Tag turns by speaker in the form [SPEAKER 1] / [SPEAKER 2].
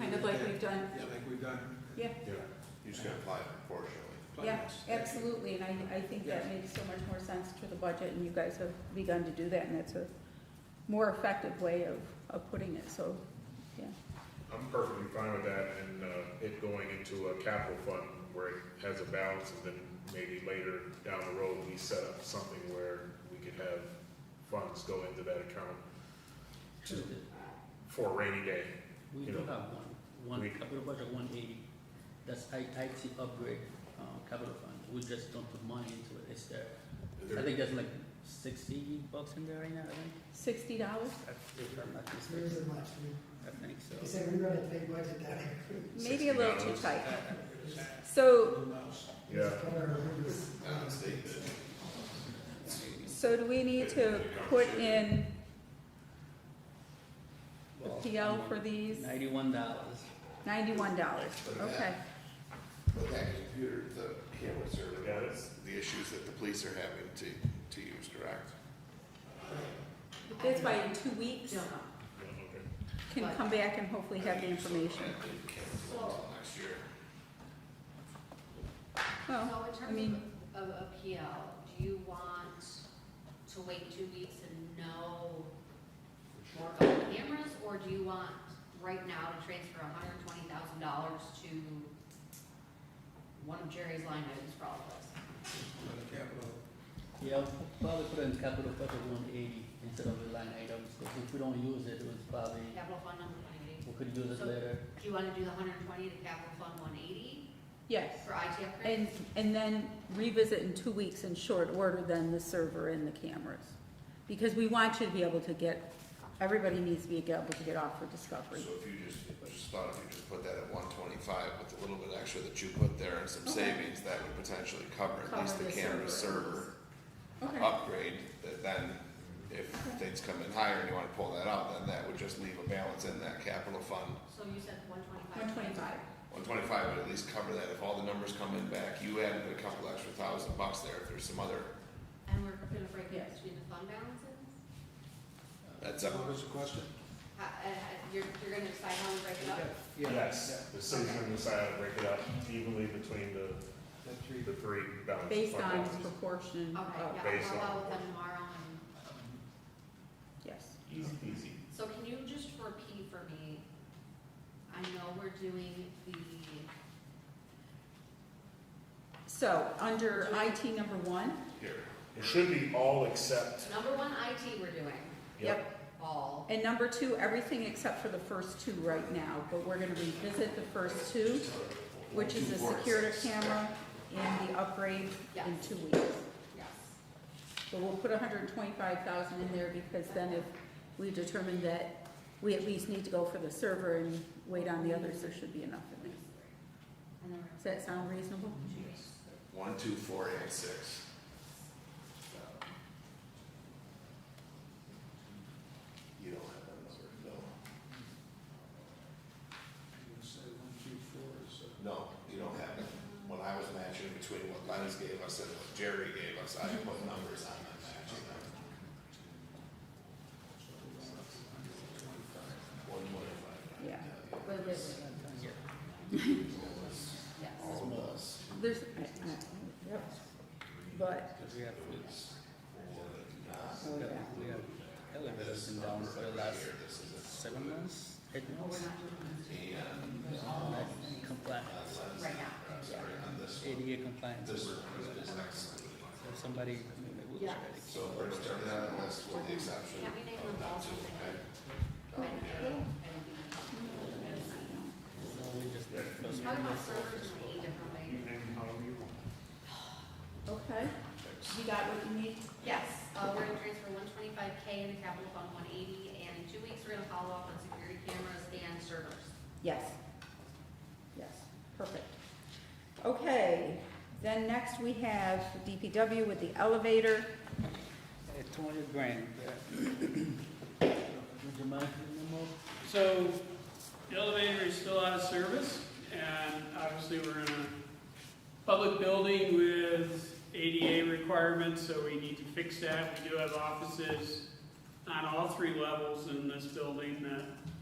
[SPEAKER 1] we've done,
[SPEAKER 2] Yeah, like we've done.
[SPEAKER 1] yeah,
[SPEAKER 3] Yeah, you just gotta apply it proportionally.
[SPEAKER 1] yeah,
[SPEAKER 2] plans.
[SPEAKER 1] absolutely, and I, I think that makes so much more sense to the budget, and you guys have begun to do that, and that's a more effective way of, of putting it, so,
[SPEAKER 2] uh,
[SPEAKER 1] yeah.
[SPEAKER 4] I'm perfectly fine with that and, uh, it going into a capital fund where it has a balance and then maybe later down the road, we set up something where we could have funds go into that account to, for a rainy day.
[SPEAKER 5] We
[SPEAKER 4] you
[SPEAKER 5] do
[SPEAKER 4] know,
[SPEAKER 5] have one, one
[SPEAKER 4] we-
[SPEAKER 5] capital budget one eighty, that's I, IT upgrade, um, capital fund, we just don't put money into it, it's there. I think there's like sixty bucks in there right now, I think,
[SPEAKER 1] Sixty dollars?
[SPEAKER 5] if I'm not
[SPEAKER 6] There
[SPEAKER 5] mistaken,
[SPEAKER 6] isn't much,
[SPEAKER 5] I think
[SPEAKER 6] they
[SPEAKER 5] so.
[SPEAKER 6] said we run a big budget down here.
[SPEAKER 1] Maybe a little too
[SPEAKER 4] $60.
[SPEAKER 1] tight.
[SPEAKER 2] Is that
[SPEAKER 1] So,
[SPEAKER 2] who knows?
[SPEAKER 4] Yeah.
[SPEAKER 6] It's covered our rooms.
[SPEAKER 1] so do we need to put in the
[SPEAKER 5] Well,
[SPEAKER 1] PL for these?
[SPEAKER 5] Ninety-one dollars,
[SPEAKER 1] Ninety-one dollars, okay.
[SPEAKER 3] But that computer, the cameras
[SPEAKER 4] Yeah,
[SPEAKER 3] are
[SPEAKER 4] that's-
[SPEAKER 3] the issues that the police are having to, to use, correct?
[SPEAKER 1] That's why in two weeks,
[SPEAKER 4] Yeah, okay.
[SPEAKER 1] can come back and hopefully have the information.
[SPEAKER 3] Next year.
[SPEAKER 1] Well,
[SPEAKER 7] So in
[SPEAKER 1] I mean-
[SPEAKER 7] terms of, of appeal, do you want to wait two weeks and know more about the cameras? Or do you want right now to transfer hundred and twenty thousand dollars to one of Jerry's line items for all of us?
[SPEAKER 2] On the capital,
[SPEAKER 5] yeah, I'll probably put in capital budget one eighty instead of the line items, 'cause if we don't use it, it was probably,
[SPEAKER 7] Capital fund number one eighty.
[SPEAKER 5] we could use it
[SPEAKER 7] So-
[SPEAKER 5] later.
[SPEAKER 7] Do you wanna do the hundred and twenty to capital fund one eighty
[SPEAKER 1] yes,
[SPEAKER 7] for IT upgrades?
[SPEAKER 1] and, and then revisit in two weeks in short order then the server and the cameras. Because we want you to be able to get, everybody needs to be able to get off for
[SPEAKER 3] So
[SPEAKER 1] discovery.
[SPEAKER 3] if you just, I just thought if you just put that at one twenty-five with a little bit extra that you put there and some
[SPEAKER 1] Okay.
[SPEAKER 3] savings, that would potentially cover at least
[SPEAKER 1] Cover
[SPEAKER 3] the
[SPEAKER 1] the
[SPEAKER 3] camera
[SPEAKER 1] server at
[SPEAKER 3] server
[SPEAKER 1] Okay,
[SPEAKER 3] upgrade. That then, if
[SPEAKER 1] Okay.
[SPEAKER 3] things come in higher and you wanna pull that out, then that would just leave a balance in that capital fund.
[SPEAKER 7] So you said one twenty-five?
[SPEAKER 1] one twenty-five,
[SPEAKER 3] One twenty-five would at least cover that. If all the numbers come in back, you added a couple extra thousand bucks there if there's some other,
[SPEAKER 7] And we're gonna break
[SPEAKER 1] Yes.
[SPEAKER 7] it between the fund balances?
[SPEAKER 3] that's up.
[SPEAKER 2] what was the question?
[SPEAKER 7] How- uh, uh, you're, you're gonna decide how we break it up?
[SPEAKER 4] Yes, the city's gonna decide to break it up evenly between the,
[SPEAKER 2] That three,
[SPEAKER 4] the three balance.
[SPEAKER 1] based
[SPEAKER 4] fund
[SPEAKER 1] on
[SPEAKER 4] balances.
[SPEAKER 1] proportion of,
[SPEAKER 7] Okay, yeah,
[SPEAKER 4] Based
[SPEAKER 7] I'll follow
[SPEAKER 4] on-
[SPEAKER 7] with them tomorrow and,
[SPEAKER 1] yes.
[SPEAKER 4] Easy peasy.
[SPEAKER 7] so can you just repeat for me? I know we're doing the,
[SPEAKER 1] So, under IT number one,
[SPEAKER 3] Here.
[SPEAKER 4] It should be all except,
[SPEAKER 7] number one IT we're doing,
[SPEAKER 4] yep,
[SPEAKER 7] all,
[SPEAKER 1] and number two, everything except for the first two right now, but we're gonna revisit the first two, which is the security camera and the upgrade in two weeks.
[SPEAKER 7] yes.
[SPEAKER 1] But we'll put hundred and twenty-five thousand in there because then if we determine that we at least need to go for the server and wait on the others, there should be enough in there.
[SPEAKER 7] And then
[SPEAKER 1] Does that sound reasonable?
[SPEAKER 7] we're two weeks,
[SPEAKER 3] One, two, four, and six.
[SPEAKER 7] so,
[SPEAKER 3] You don't have that number, no.
[SPEAKER 2] you would say one, two, four, so.
[SPEAKER 3] No, you don't have it. When I was matching between what Lennox gave us and what Jerry gave us, I put numbers on that matching them. One twenty-five.
[SPEAKER 1] Yeah.
[SPEAKER 7] yes.
[SPEAKER 3] All of us.
[SPEAKER 1] There's, I- I- yep. but, oh,
[SPEAKER 5] Cause we have,
[SPEAKER 3] Not
[SPEAKER 5] we have, we have elevators and down for the last seven months, eight
[SPEAKER 7] Oh, we're
[SPEAKER 5] months.
[SPEAKER 7] not doing
[SPEAKER 3] And,
[SPEAKER 5] Like compliance,
[SPEAKER 7] this right now.
[SPEAKER 3] sorry, on this,
[SPEAKER 5] ADA compliance,
[SPEAKER 3] this
[SPEAKER 5] so
[SPEAKER 3] is excellent.
[SPEAKER 5] somebody in a
[SPEAKER 7] Yeah.
[SPEAKER 5] wheelchair. they
[SPEAKER 3] So we're starting that list with the exception
[SPEAKER 7] Can't we make them
[SPEAKER 3] of
[SPEAKER 7] all
[SPEAKER 3] not to,
[SPEAKER 7] something?
[SPEAKER 3] okay?
[SPEAKER 5] can't- So we just.
[SPEAKER 7] How about servers in eight different ways?
[SPEAKER 1] okay, you got what you need?
[SPEAKER 7] Yes, uh, we're gonna transfer one twenty-five K in the capital fund one eighty, and in two weeks, we're gonna follow up on security cameras and servers.
[SPEAKER 1] Yes. Yes, perfect. Okay, then next we have DPW with the elevator.
[SPEAKER 5] Uh, Two hundred grand. Would you mind giving them up?
[SPEAKER 8] So the elevator is still out of service, and obviously we're in a public building with ADA requirements, so we need to fix that. We do have offices on all three levels in this building that